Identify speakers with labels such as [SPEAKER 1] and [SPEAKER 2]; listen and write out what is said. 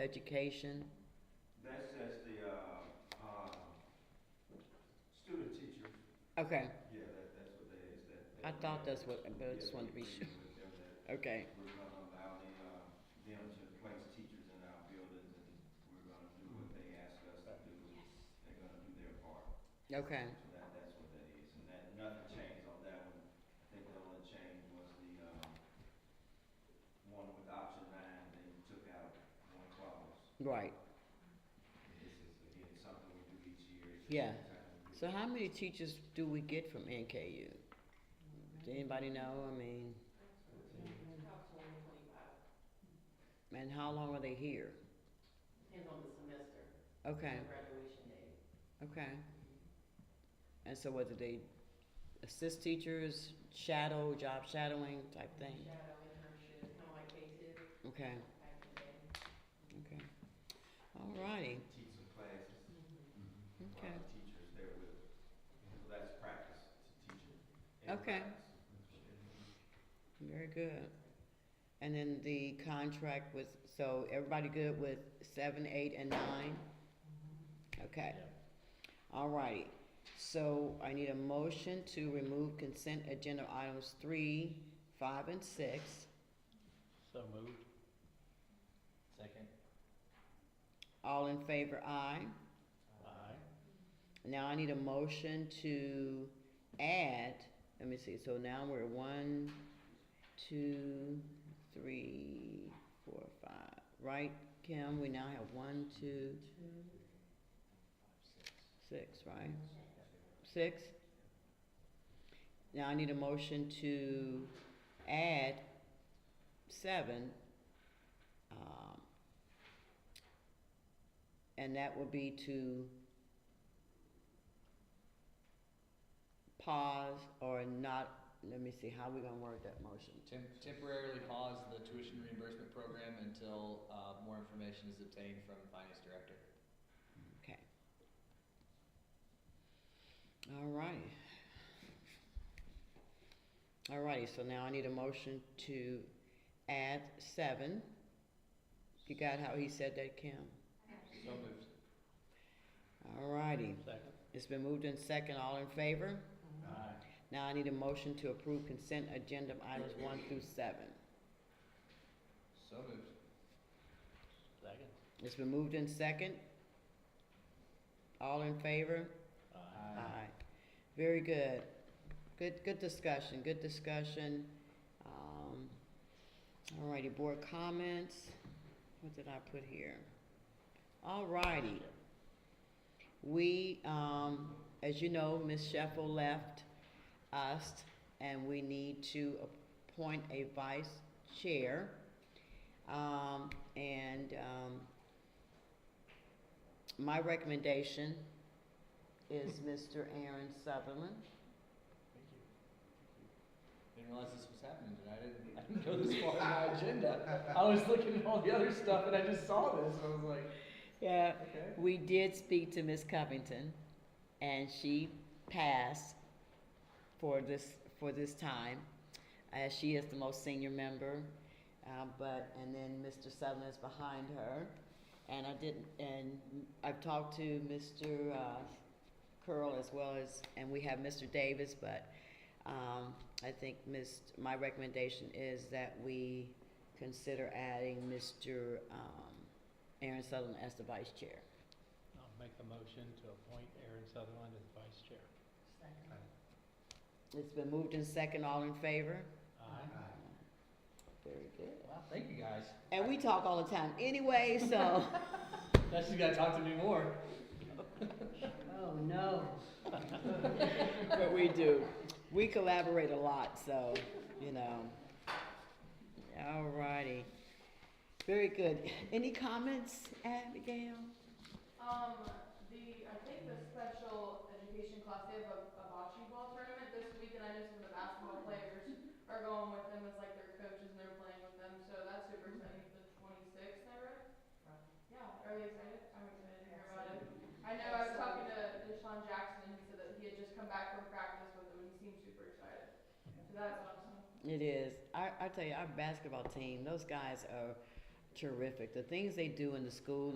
[SPEAKER 1] education,
[SPEAKER 2] That says the, uh, uh, student teacher,
[SPEAKER 1] okay,
[SPEAKER 2] yeah, that, that's what that is, that.
[SPEAKER 1] I
[SPEAKER 2] that-
[SPEAKER 1] thought that's what, but I
[SPEAKER 2] Yeah,
[SPEAKER 1] just wanted to be
[SPEAKER 2] we
[SPEAKER 1] sure,
[SPEAKER 2] agreed with them
[SPEAKER 1] okay,
[SPEAKER 2] that We're gonna allow the, uh, them to place teachers in our buildings and we're gonna do what they ask us to do. They're gonna do their part.
[SPEAKER 1] okay,
[SPEAKER 2] So that, that's what that is, and that, nothing changed on that one. I think the only change was the, um, one with option nine, they took out one clause.
[SPEAKER 1] right.
[SPEAKER 2] This is, again, something we do each year. It's
[SPEAKER 1] Yeah.
[SPEAKER 2] just something we do.
[SPEAKER 1] So how many teachers do we get from NKU? Does anybody know, I mean? And how long are they here?
[SPEAKER 3] Depends on the semester,
[SPEAKER 1] Okay,
[SPEAKER 3] and graduation date.
[SPEAKER 1] okay. And so whether they assist teachers, shadow, job shadowing type thing,
[SPEAKER 3] Shadow internship, kind of like K-Tip
[SPEAKER 1] okay,
[SPEAKER 3] back in the day.
[SPEAKER 1] okay. All righty,
[SPEAKER 2] Teach some classes, Mm-hmm.
[SPEAKER 1] okay.
[SPEAKER 2] while the teacher's there with, them. so that's practice to teaching.
[SPEAKER 1] Okay. Very good. And then the contract was, so everybody good with seven, eight, and nine? Okay. All righty. So I need a motion to remove consent agenda items three, five, and six.
[SPEAKER 4] So moved. Second.
[SPEAKER 1] All in favor, aye.
[SPEAKER 4] Aye.
[SPEAKER 1] Now I need a motion to add, let me see, so now we're one, two, three, four, five, right, Kim? We now have one, two, six, right? Six? Now I need a motion to add seven, um, and that will be to pause or not, let me see, how we gonna word that motion?
[SPEAKER 5] Tem- Temporarily pause the tuition reimbursement program until uh, more information is obtained from the finance director.
[SPEAKER 1] Okay. Alrighty. Alrighty, so now I need a motion to add seven. You got how he said that, Kim?
[SPEAKER 5] So moved.
[SPEAKER 1] Alrighty,
[SPEAKER 4] Second.
[SPEAKER 1] it's been moved in second, all in favor?
[SPEAKER 4] Aye.
[SPEAKER 1] Now I need a motion to approve consent agenda items one through seven.
[SPEAKER 5] So moved.
[SPEAKER 4] Second.
[SPEAKER 1] It's been moved in second. All in favor?
[SPEAKER 4] Aye.
[SPEAKER 1] Aye. Very good. Good, good discussion, good discussion. Um, all righty, board comments. What did I put here? All righty. We, um, as you know, Ms. Sheffel left us and we need to appoint a vice chair. Um, and, um, my recommendation is Mr. Aaron Sutherland.
[SPEAKER 4] Thank you.
[SPEAKER 5] Didn't realize this was happening tonight. I didn't, I didn't go this far in my agenda. I was looking at all the other stuff and I just saw this. I was like,
[SPEAKER 1] Yeah,
[SPEAKER 5] okay.
[SPEAKER 1] we did speak to Miss Covington, and she passed for this, for this time. Uh, she is the most senior member, uh, but, and then Mr. Sutherland is behind her. And I didn't, and I've talked to Mr. uh, Curl as well as, and we have Mr. Davis, but, um, I think Ms., my recommendation is that we consider adding Mr. um, Aaron Sutherland as the vice chair.
[SPEAKER 4] I'll make a motion to appoint Aaron Sutherland as vice chair.
[SPEAKER 3] Second.
[SPEAKER 1] It's been moved in second, all in favor?
[SPEAKER 4] Aye.
[SPEAKER 1] Very good.
[SPEAKER 5] Wow, thank you guys.
[SPEAKER 1] And we talk all the time anyway, so.
[SPEAKER 5] That's just gotta talk to me more.
[SPEAKER 3] Oh, no.
[SPEAKER 1] But we do. We collaborate a lot, so, you know. All righty. Very good. Any comments, Abigail?
[SPEAKER 6] Um, the, I think the special education class, they have a, a bocce ball tournament this week, and I know some of the basketball players are going with them as like their coaches and they're playing with them, so that's super exciting, the twenty-sixth, I read?
[SPEAKER 3] Right.
[SPEAKER 6] Yeah, are you excited? I'm excited to hear about it. I know, I was talking to Deshaun Jackson, and he said that he had just come back from practice with them, and he seemed super excited, so that's awesome.
[SPEAKER 1] It is. I, I tell you, our basketball team, those guys are, terrific. The things they do in the school